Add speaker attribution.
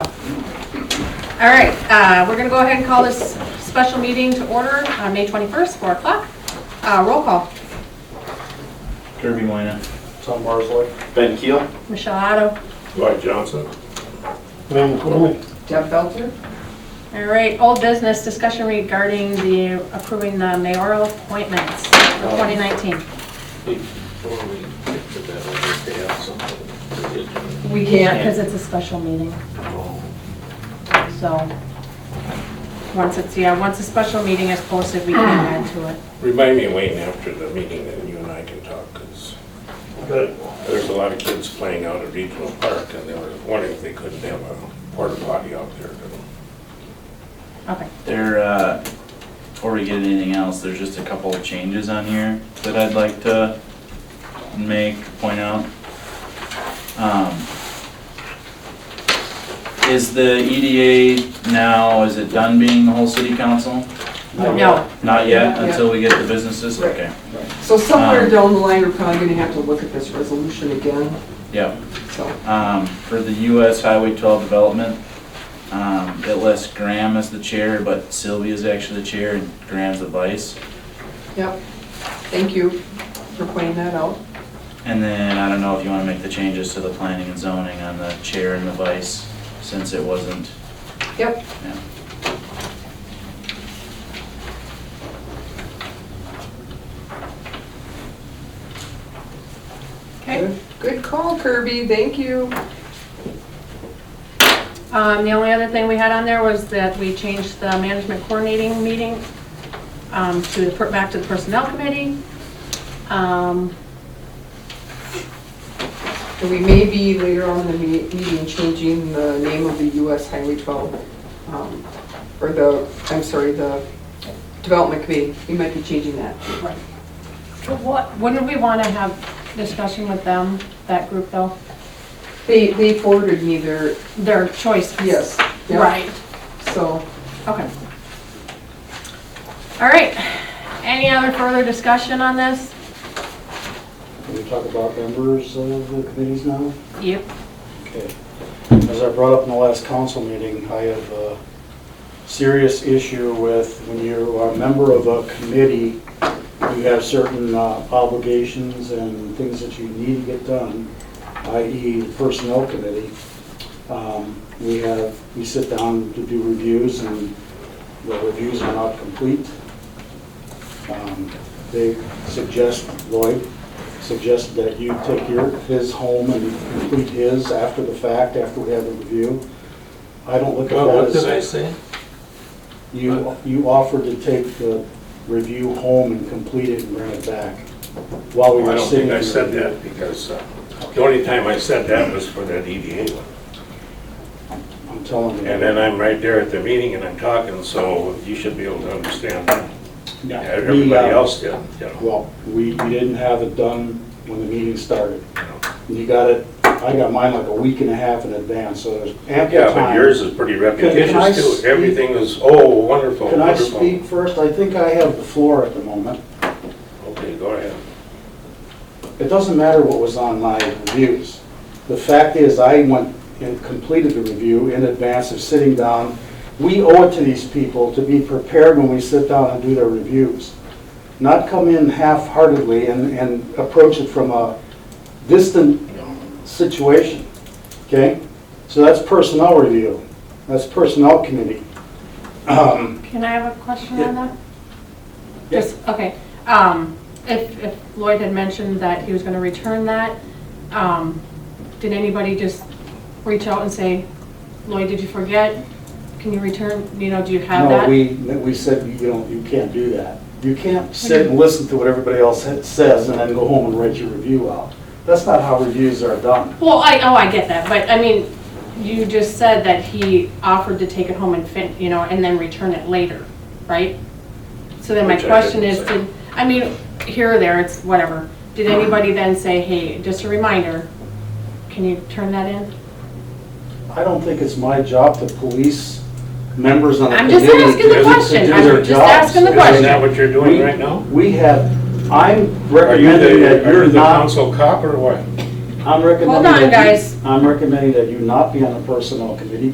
Speaker 1: All right, uh, we're going to go ahead and call this special meeting to order on May 21st, 4 o'clock. Uh, Roll call,
Speaker 2: Kirby Moyna.
Speaker 3: Tom Barzley.
Speaker 4: Ben Keel?
Speaker 1: Michelle Otto.
Speaker 4: Dwight Johnson?
Speaker 3: Lynn McCormick.
Speaker 5: Jeff Belcher?
Speaker 1: All right, old business discussion regarding the approving the mayoral appointments for 2019.
Speaker 4: Before we put that on, they have something.
Speaker 5: We can't.
Speaker 1: Because it's a special meeting. So, once it's, yeah, once a special meeting is posted, we can add to it.
Speaker 6: Remind me, Wayne, after the meeting, that you and I can talk, because
Speaker 3: Good.
Speaker 6: there's a lot of kids playing out at Regional Park, and they were wondering if they couldn't have a porta potty out there.
Speaker 1: Okay,
Speaker 2: There, uh, before we get into anything else, there's just a couple of changes on here that I'd like to make, point out. Um, Is the EDA now, is it done being the whole city council?
Speaker 1: no,
Speaker 2: Not yet,
Speaker 5: Yeah.
Speaker 2: until we get the businesses?
Speaker 5: Right.
Speaker 2: Okay,
Speaker 5: So somewhere
Speaker 2: Um,
Speaker 5: down the line, we're probably gonna have to look at this resolution again,
Speaker 2: yep.
Speaker 5: so.
Speaker 2: um, for the US Highway 12 development. Um, It lists Graham as the chair, but Sylvia's actually the chair and Graham's the vice.
Speaker 5: Yep, thank you for pointing that out.
Speaker 2: And then, I don't know if you want to make the changes to the planning and zoning on the chair and the vice, since it wasn't,
Speaker 5: Yep,
Speaker 2: yeah.
Speaker 1: okay.
Speaker 5: good call Kirby, thank you.
Speaker 1: Um, The only other thing we had on there was that we changed the management coordinating meeting um, to, the per- back to the personnel committee. Um,
Speaker 5: And we may be later on in the me- meeting changing the name of the US Highway 12, um, or the, I'm sorry, the Development Committee. We might be changing that.
Speaker 1: but what- Wouldn't we want to have discussion with them, that group though?
Speaker 5: They, they forwarded me their,
Speaker 1: Their choice.
Speaker 5: yes. yep.
Speaker 1: Right,
Speaker 5: So,
Speaker 1: okay. All right, any other further discussion on this?
Speaker 3: Can we talk about members of the committees now?
Speaker 1: Yep.
Speaker 3: Okay. As I brought up in the last council meeting, I have uh, a serious issue with when you're a member of a committee, you have certain uh, obligations and things that you need to get done, i.e. the personnel committee. Um, We have, we sit down to do reviews and the reviews are not complete. Um, They suggest, Lloyd suggested that you take your, his home and complete his after the fact, after we have a review. I don't look at that as.
Speaker 4: say?
Speaker 3: You, you offered to take the review home and complete it and bring it back while we
Speaker 6: Oh, I
Speaker 3: were
Speaker 6: don't
Speaker 3: Oh, sitting.
Speaker 6: think I
Speaker 3: in
Speaker 6: said
Speaker 3: review.
Speaker 6: that, because uh, the only time I said that was for that EDA one.
Speaker 3: I'm telling you.
Speaker 6: And then I'm right there at the meeting and I'm talking, so you should be able to understand.
Speaker 3: Yeah, we,
Speaker 6: Everybody
Speaker 3: uh,
Speaker 6: else did, you know.
Speaker 3: Well, we, we didn't have it done when the meeting started. You got it, I got mine like a week and a half in advance, so there's ample
Speaker 6: Yeah,
Speaker 3: time.
Speaker 6: but yours is pretty
Speaker 3: Can I
Speaker 6: repetitious
Speaker 3: speak?
Speaker 6: too. Everything is, oh, wonderful,
Speaker 3: Can I
Speaker 6: wonderful.
Speaker 3: speak first? I think I have the floor at the moment.
Speaker 6: Okay, go ahead.
Speaker 3: It doesn't matter what was on my reviews. The fact is, I went and completed the review in advance of sitting down. We owe it to these people to be prepared when we sit down and do their reviews. Not come in half-heartedly and, and approach it from a distant situation, okay? So that's personnel review, that's personnel committee. Um,
Speaker 1: Can I have a question
Speaker 3: Yeah.
Speaker 1: on that?
Speaker 3: Yeah.
Speaker 1: Just, okay, um, if, if Lloyd had mentioned that he was gonna return that, um, did anybody just reach out and say, Lloyd, did you forget? Can you return, you know, do you have that?
Speaker 3: No, we, we said, you don't, you can't do that. You can't sit and listen to what everybody else ha- says and then go home and write your review out. That's not how reviews are done.
Speaker 1: Well, I, oh, I get that, but I mean, you just said that he offered to take it home and fin, you know, and then return it later, right? So then my
Speaker 6: Which I
Speaker 1: question
Speaker 6: didn't
Speaker 1: is,
Speaker 6: say.
Speaker 1: did, I mean, here or there, it's whatever. Did anybody then say, hey, just a reminder, can you turn that in?
Speaker 3: I don't think it's my job to police members on a
Speaker 1: I'm
Speaker 3: committee.
Speaker 1: just asking the
Speaker 3: to- to
Speaker 1: question.
Speaker 3: do
Speaker 1: I'm
Speaker 3: their
Speaker 1: just
Speaker 3: jobs.
Speaker 1: asking the
Speaker 3: Because
Speaker 1: question.
Speaker 6: Isn't that what you're doing
Speaker 3: We-
Speaker 6: right now?
Speaker 3: We have, I'm
Speaker 6: Are you
Speaker 3: recommending that
Speaker 6: the, are
Speaker 3: you're
Speaker 6: you the
Speaker 3: not,
Speaker 6: council cop or what?
Speaker 3: I'm recommending
Speaker 1: Hold on,
Speaker 3: that you-
Speaker 1: guys.
Speaker 3: I'm recommending that you not be on the personnel committee